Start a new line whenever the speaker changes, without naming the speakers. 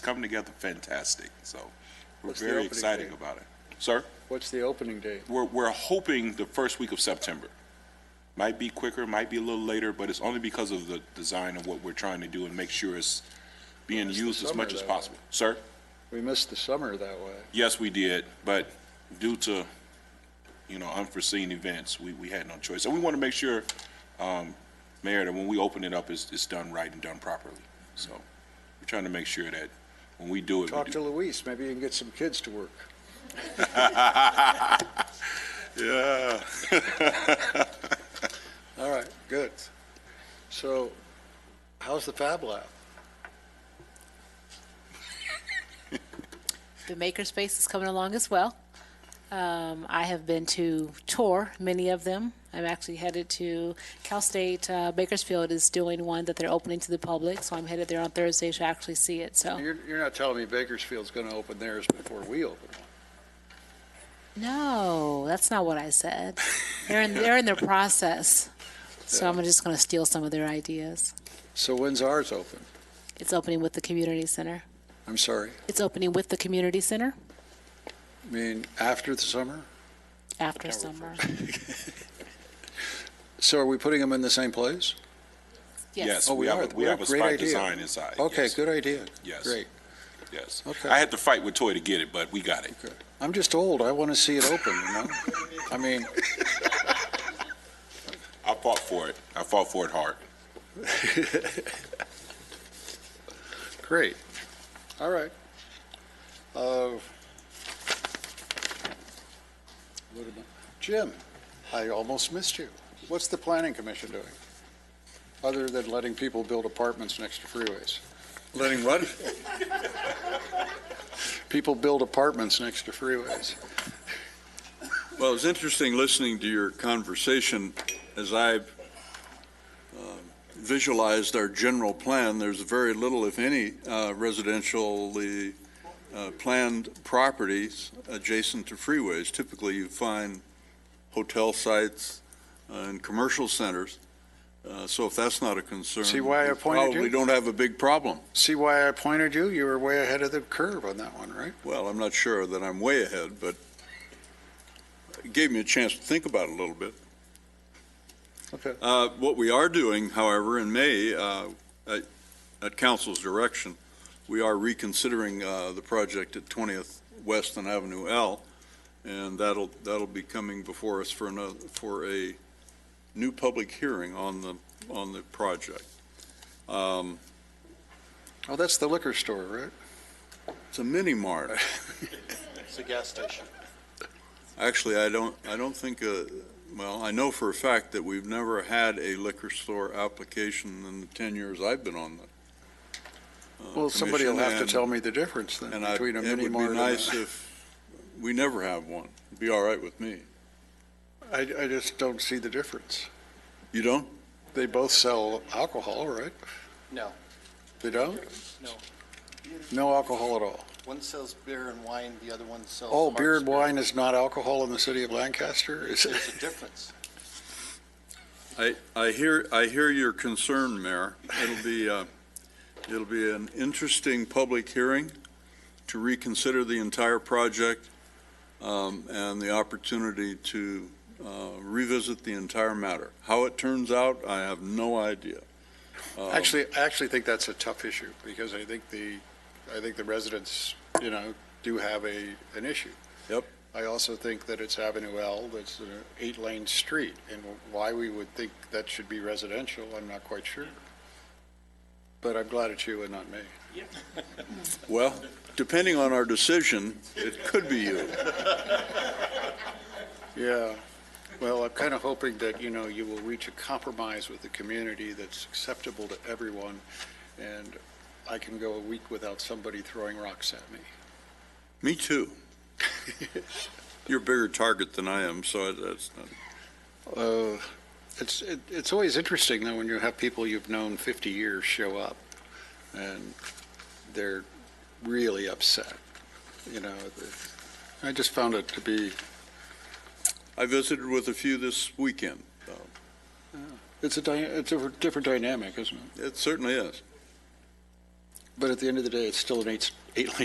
come together fantastic, so we're
What's the
very
opening
excited
date?
about it. Sir,
What's the opening date?
we're, we're hoping the first week of September. Might be quicker, might be a little later, but it's only because of the design of what we're trying to do and make sure it's being
It's the
used as
summer,
much as
though.
possible. Sir,
We missed the summer that way.
yes, we did, but due to, you know, unforeseen events, we, we had no choice. And we want to make sure, um, Mayor, that when we open it up, it's, it's done right and done properly. So we're trying to make sure that when we do it. we
Talk
do-
to Luis, maybe you can get some kids to work.
Yeah.
All right, good. So how's the Fab Lab?
The makerspace is coming along as well. Um, I have been to tour many of them. I'm actually headed to Cal State uh, Bakersfield is doing one that they're opening to the public, so I'm headed there on Thursday to actually see it. So
You're, you're not telling me Bakersfield's going to open theirs before we open one.
no, that's not what I said. They're in, they're in their process, so I'm just going to steal some of their ideas.
So when's ours open?
It's opening with the community center.
I'm sorry.
It's opening with the community center
I mean, after the summer?
after summer.
So are we putting them in the same place?
Yes,
Oh,
we
we are.
have, a- we
What a
have a
great
spot
idea.
design inside.
Okay,
yes,
good idea.
Yes.
Great.
Yes.
Okay.
I had to fight with Toy to get it, but we got it.
Good. I'm just old. I want to see it open, you know? I mean,
I fought for it. I fought for it hard.
Great. All right. Uh, what about- Jim, I almost missed you. What's the planning commission doing? Other than letting people build apartments next to freeways?
Letting what?
People build apartments next to freeways.
Well, it's interesting listening to your conversation as I've um, visualized our general plan. There's very little, if any, uh, residentially uh, planned properties adjacent to freeways. Typically, you find hotel sites uh, and commercial centers. Uh, So if that's not a concern.
See why I
we
appointed you?
Probably don't have a big problem.
See why I appointed you? You were way ahead of the curve on that one, right?
Well, I'm not sure that I'm way ahead, but it gave me a chance to think about it a little bit.
Okay.
Uh, What we are doing, however, in May, uh, at at council's direction, we are reconsidering uh, the project at 20th West and Avenue L, and that'll, that'll be coming before us for another, for a new public hearing on the, on the project. Um,
Oh, that's the liquor store, right?
It's a mini mart.
It's a gas station.
Actually, I don't, I don't think, uh, well, I know for a fact that we've never had a liquor store application in the 10 years I've been on the, uh,
Well, somebody will have to
commission,
tell me the difference then
and- and I-
between a mini
It would
mart
be
and
nice
a...
if we never have one. It'd be all right with me.
I, I just don't see the difference.
You don't?
They both sell alcohol, right?
No.
They don't?
No.
No alcohol at all?
One sells beer and wine, the other one sells.
Oh,
hard
beer and
spirit.
wine is not alcohol in the city of Lancaster? Is
There's
it?
a difference.
I, I hear, I hear your concern, Mayor. It'll be, uh, it'll be an interesting public hearing to reconsider the entire project um, and the opportunity to uh, revisit the entire matter. How it turns out, I have no idea. Um,
Actually, I actually think that's a tough issue because I think the, I think the residents, you know, do have a, an issue.
Yep.
I also think that it's Avenue L, that's an eight-lane street, and why we would think that should be residential, I'm not quite sure. But I'm glad it's you and not me.
Well, depending on our decision, it could be you.
Yeah, well, I'm kind of hoping that, you know, you will reach a compromise with the community that's acceptable to everyone, and I can go a week without somebody throwing rocks at me.
Me too. You're a bigger target than I am, so that's not
Uh, It's, it- it's always interesting, though, when you have people you've known 50 years show up, and they're really upset, you know. the- I just found it to be,
I visited with a few this weekend.
it's a, dy- it's a different dynamic, isn't it?
It certainly is.
But at the end of the day, it's still an eight, eight-lane